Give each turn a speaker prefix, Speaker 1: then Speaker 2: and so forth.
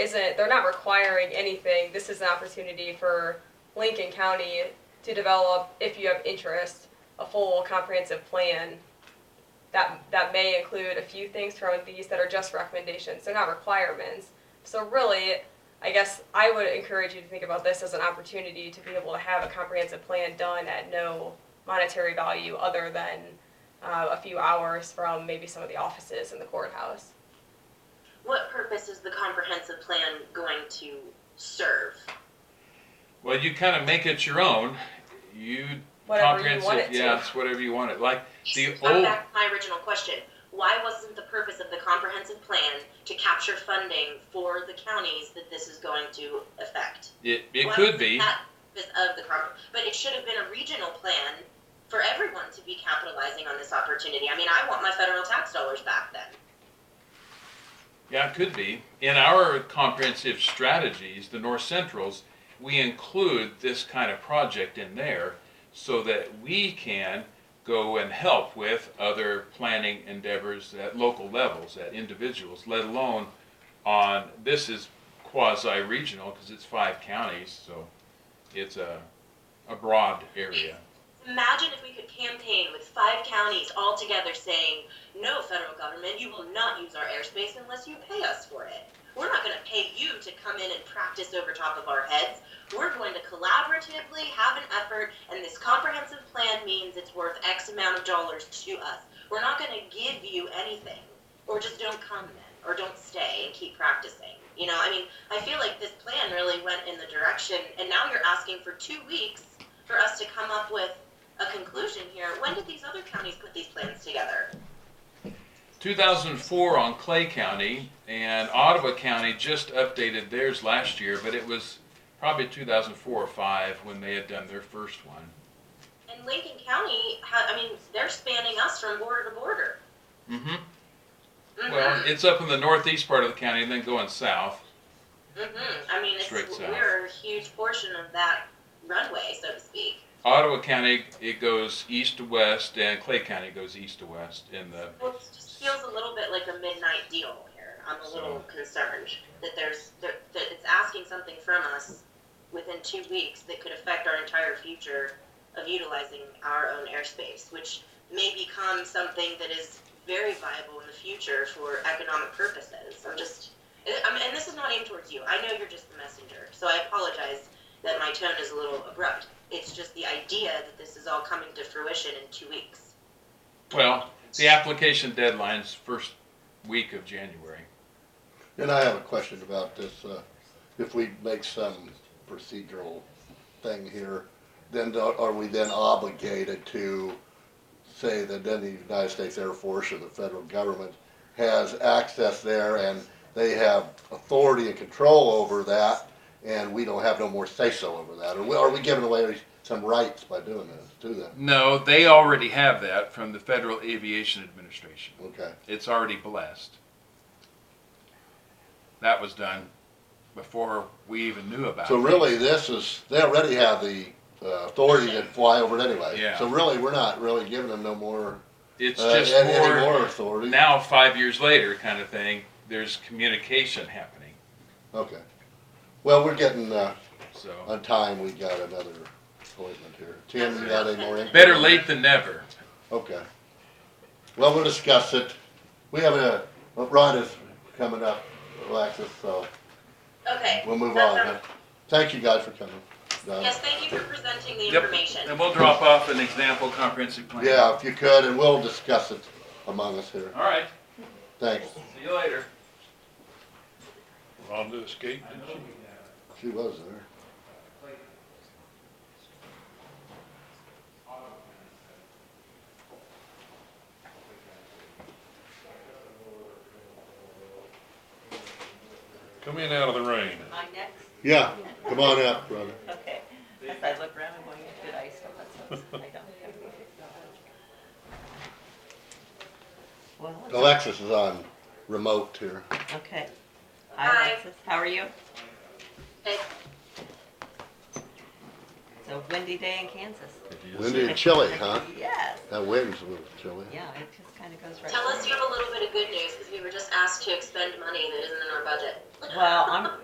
Speaker 1: isn't, they're not requiring anything. This is an opportunity for Lincoln County to develop, if you have interest, a full comprehensive plan that, that may include a few things from these that are just recommendations. They're not requirements. So really, I guess I would encourage you to think about this as an opportunity to be able to have a comprehensive plan done at no monetary value other than uh, a few hours from maybe some of the offices in the courthouse.
Speaker 2: What purpose is the comprehensive plan going to serve?
Speaker 3: Well, you kind of make it your own. You
Speaker 1: Whatever you
Speaker 3: comprehensive,
Speaker 1: want it to.
Speaker 3: yeah, it's whatever you want it. Like the
Speaker 2: Come
Speaker 3: old,
Speaker 2: back to my original question. Why wasn't the purpose of the comprehensive plan to capture funding for the counties that this is going to affect?
Speaker 3: it, it
Speaker 2: Why
Speaker 3: could
Speaker 2: wasn't
Speaker 3: be.
Speaker 2: that the purpose of the compre- but it should have been a regional plan for everyone to be capitalizing on this opportunity. I mean, I want my federal tax dollars back then.
Speaker 3: Yeah, it could be. In our comprehensive strategies, the North Centrals, we include this kind of project in there so that we can go and help with other planning endeavors at local levels, at individuals, let alone on, this is quasi-regional because it's five counties, so it's a, a broad area.
Speaker 2: Imagine if we could campaign with five counties all together saying, no, federal government, you will not use our airspace unless you pay us for it. We're not going to pay you to come in and practice over top of our heads. We're going to collaboratively have an effort, and this comprehensive plan means it's worth X amount of dollars to us. We're not going to give you anything, or just don't come then, or don't stay and keep practicing. You know, I mean, I feel like this plan really went in the direction, and now you're asking for two weeks for us to come up with a conclusion here. When did these other counties put these plans together?
Speaker 3: 2004 on Clay County, and Ottawa County just updated theirs last year, but it was probably 2004 or 5 when they had done their first one.
Speaker 2: And Lincoln County, ha- I mean, they're spanning us from border to border.
Speaker 3: Mm-hmm.
Speaker 2: Mhm.
Speaker 3: Well, it's up in the northeast part of the county and then going south.
Speaker 2: Mhm. I mean, it's,
Speaker 3: Straight south.
Speaker 2: we're a huge portion of that runway, so to speak.
Speaker 3: Ottawa County, it goes east to west, and Clay County goes east to west in the
Speaker 2: Well, it just feels a little bit like a midnight deal here. I'm a little concerned that there's that, that it's asking something from us within two weeks that could affect our entire future of utilizing our own airspace, which may become something that is very viable in the future for economic purposes. I'm just, I mean, and this is not aimed towards you. I know you're just the messenger, so I apologize that my tone is a little abrupt. It's just the idea that this is all coming to fruition in two weeks.
Speaker 3: well, the application deadline's first week of January.
Speaker 4: And I have a question about this, uh, if we make some procedural thing here, then do- are we then obligated to say that then the United States Air Force or the federal government has access there and they have authority and control over that and we don't have no more say-so over that? Or we- are we giving away some rights by doing this to them?
Speaker 3: No, they already have that from the Federal Aviation Administration.
Speaker 4: Okay,
Speaker 3: It's already blessed. That was done before we even knew about
Speaker 4: so
Speaker 3: it.
Speaker 4: really this is, they already have the uh, authority to fly over it anyway.
Speaker 3: Yeah.
Speaker 4: So really, we're not really giving them no more
Speaker 3: It's
Speaker 4: Uh,
Speaker 3: just
Speaker 4: and any
Speaker 3: more,
Speaker 4: more authority.
Speaker 3: now, five years later, kind of thing. There's communication happening.
Speaker 4: Okay. Well, we're getting uh,
Speaker 3: So
Speaker 4: on time. We got another appointment here. Tim, you got any more? in-
Speaker 3: better late than never.
Speaker 4: Okay. Well, we'll discuss it. We have a Ron is coming up, Alexis, so
Speaker 2: Okay.
Speaker 4: we'll move
Speaker 2: that
Speaker 4: on.
Speaker 2: sounds-
Speaker 4: Thank you guys for coming. Don.
Speaker 2: Yes, thank you for presenting the
Speaker 3: Yep.
Speaker 2: information.
Speaker 3: And we'll drop off an example comprehensive plan.
Speaker 4: Yeah, if you could, and we'll discuss it among us here.
Speaker 3: All right.
Speaker 4: Thanks.
Speaker 3: See you later.
Speaker 5: Rhonda escaped,
Speaker 3: I
Speaker 5: did
Speaker 3: know
Speaker 4: She
Speaker 5: she?
Speaker 4: was there.
Speaker 5: Come in out of the rain.
Speaker 6: My next,
Speaker 4: Yeah. Come on up, brother.
Speaker 6: okay. If I look around, I'm going, did I still have some? I don't. Well, it's-
Speaker 4: Alexis is on remote here.
Speaker 6: okay.
Speaker 2: Hi.
Speaker 6: Hi Alexis, how are you?
Speaker 2: Hey.
Speaker 6: So
Speaker 2: a windy day in Kansas.
Speaker 4: Windy and chilly, huh?
Speaker 2: Yes.
Speaker 4: That wind's a little chilly.
Speaker 2: Yeah, it just kind of goes right.
Speaker 6: Tell us
Speaker 2: through.
Speaker 6: you have a little bit of good news because we were just asked to expend money that isn't in our budget.
Speaker 2: Well, I'm